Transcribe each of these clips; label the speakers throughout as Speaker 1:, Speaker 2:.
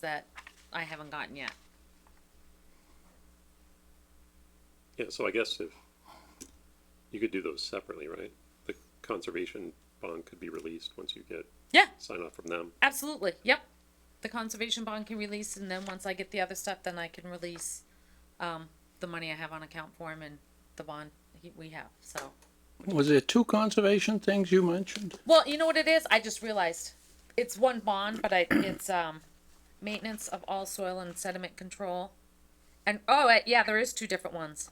Speaker 1: that I haven't gotten yet.
Speaker 2: Yeah, so I guess if, you could do those separately, right? The conservation bond could be released once you get
Speaker 1: Yeah,
Speaker 2: sign off from them.
Speaker 1: absolutely. Yep. The conservation bond can release, and then once I get the other stuff, then I can release um, the money I have on account for him and the bond he, we have. So,
Speaker 3: Was there two conservation things you mentioned?
Speaker 1: well, you know what it is? I just realized it's one bond, but I, it's um, maintenance of all soil and sediment control. And oh, uh, yeah, there is two different ones.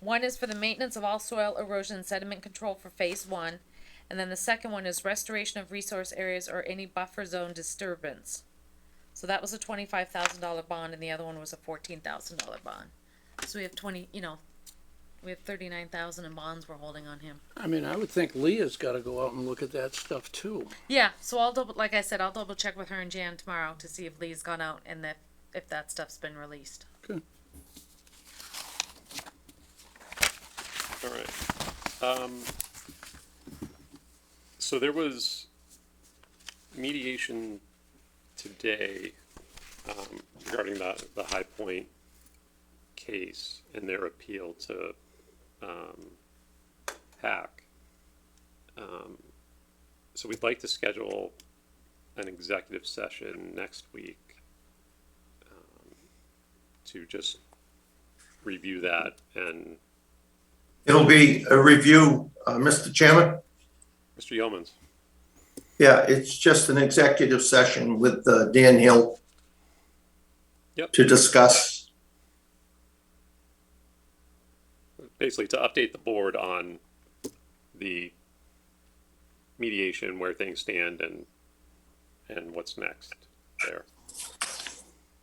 Speaker 1: One is for the maintenance of all soil erosion and sediment control for phase one, and then the second one is restoration of resource areas or any buffer zone disturbance. So that was a twenty-five thousand dollar bond, and the other one was a fourteen thousand dollar bond. So we have twenty, you know, we have thirty-nine thousand in bonds we're holding on him.
Speaker 3: I mean, I would think Leah's gotta go out and look at that stuff too.
Speaker 1: Yeah, so I'll double, like I said, I'll double check with her and Jan tomorrow to see if Lee's gone out and if, if that stuff's been released.
Speaker 3: Good.
Speaker 2: All right. Um, so there was mediation today, um, regarding the, the High Point case and their appeal to, um, PAC. Um, so we'd like to schedule an executive session next week um, to just review that and,
Speaker 4: It'll be a review, uh, Mr. Chairman.
Speaker 2: Mr. Yeomans?
Speaker 4: Yeah, it's just an executive session with uh, Dan Hill
Speaker 2: Yep.
Speaker 4: to discuss.
Speaker 2: basically to update the board on the mediation, where things stand and, and what's next there.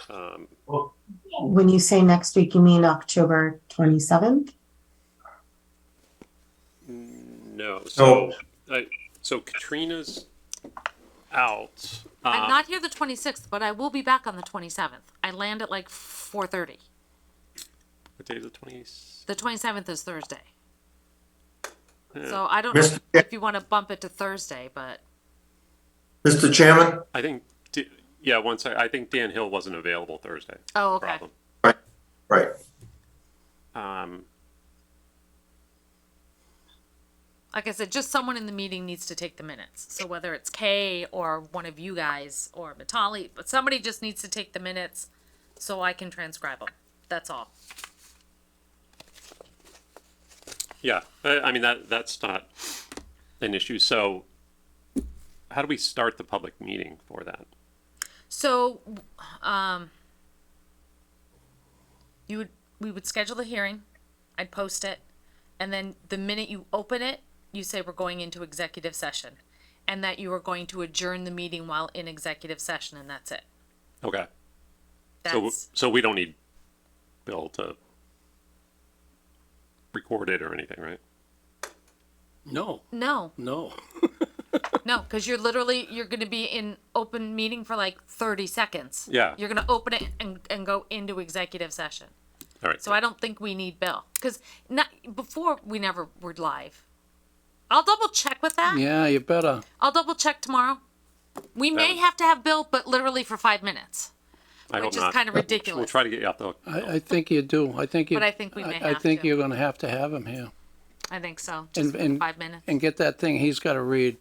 Speaker 2: Um,
Speaker 5: When you say next week, you mean October 27th?
Speaker 2: no, so, I, so Katrina's out.
Speaker 1: I'm
Speaker 2: Uh,
Speaker 1: not here the twenty-sixth, but I will be back on the twenty-seventh. I land at like four thirty.
Speaker 2: What day is the twenties?
Speaker 1: The twenty-seventh is Thursday. So I don't know
Speaker 4: Mr.
Speaker 1: if you want to bump it to Thursday, but
Speaker 4: Mr. Chairman,
Speaker 2: I think, D- yeah, once, I, I think Dan Hill wasn't available Thursday.
Speaker 1: Oh, okay.
Speaker 2: Problem.
Speaker 4: right,
Speaker 2: Um,
Speaker 1: like I said, just someone in the meeting needs to take the minutes. So whether it's Kay or one of you guys or Matali, but somebody just needs to take the minutes so I can transcribe them. That's all.
Speaker 2: Yeah, I, I mean, that, that's not an issue. So how do we start the public meeting for that?
Speaker 1: So, um, you would, we would schedule the hearing, I'd post it, and then the minute you open it, you say we're going into executive session. And that you are going to adjourn the meeting while in executive session, and that's it.
Speaker 2: Okay. So,
Speaker 1: That's,
Speaker 2: so we don't need Bill to record it or anything, right?
Speaker 3: No,
Speaker 1: no,
Speaker 3: no.
Speaker 1: no, cause you're literally, you're gonna be in open meeting for like thirty seconds.
Speaker 2: Yeah.
Speaker 1: You're gonna open it and, and go into executive session.
Speaker 2: All right.
Speaker 1: So I don't think we need Bill because not before we never were live. I'll double check with that.
Speaker 3: Yeah, you better.
Speaker 1: I'll double check tomorrow. We may
Speaker 2: was-
Speaker 1: have to have Bill, but literally for five minutes,
Speaker 2: I hope
Speaker 1: which is
Speaker 2: not.
Speaker 1: kind of
Speaker 2: We'll
Speaker 1: ridiculous.
Speaker 2: try to get you off the hook.
Speaker 3: I, I think you do. I think you.
Speaker 1: But I think we may
Speaker 3: I
Speaker 1: have
Speaker 3: think
Speaker 1: to.
Speaker 3: you're gonna have to have him here
Speaker 1: I think so. Just
Speaker 3: and,
Speaker 1: for
Speaker 3: and.
Speaker 1: five minutes.
Speaker 3: And get that thing he's gotta read,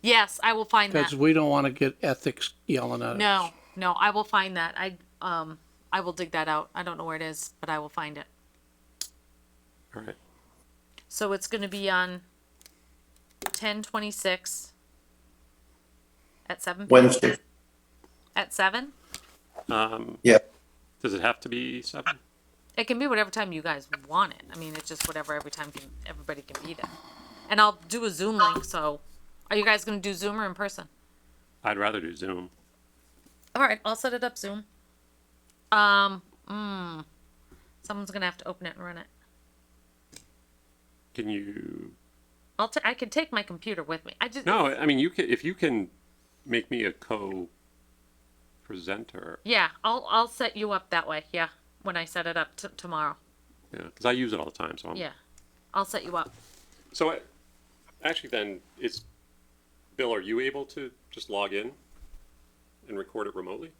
Speaker 1: Yes, I will find that.
Speaker 3: cause we don't wanna get ethics yelling at us.
Speaker 1: No, no, I will find that. I um, I will dig that out. I don't know where it is, but I will find it.
Speaker 2: All right.
Speaker 1: So it's going to be on ten twenty six at seven.
Speaker 4: Wednesday.
Speaker 1: At seven.
Speaker 2: Um,
Speaker 4: Yeah,
Speaker 2: does it have to be seven?
Speaker 1: It can be whatever time you guys want it. I mean, it's just whatever every time can everybody can be there. And I'll do a Zoom link. So, are you guys gonna do Zoom or in person?
Speaker 2: I'd rather do Zoom.
Speaker 1: All right, I'll set it up Zoom. Um, mm, someone's gonna have to open it and run it.
Speaker 2: Can you?
Speaker 1: I'll t- I can take my computer with me. I just
Speaker 2: No, I mean you can. If you can make me a co-presenter,
Speaker 1: yeah. I'll I'll set you up that way. Yeah, when I set it up t- tomorrow.
Speaker 2: yeah, because I use it all the time. So I'm,
Speaker 1: Yeah, I'll set you up.
Speaker 2: So I, actually, then it's Bill. Are you able to just log in and record it remotely?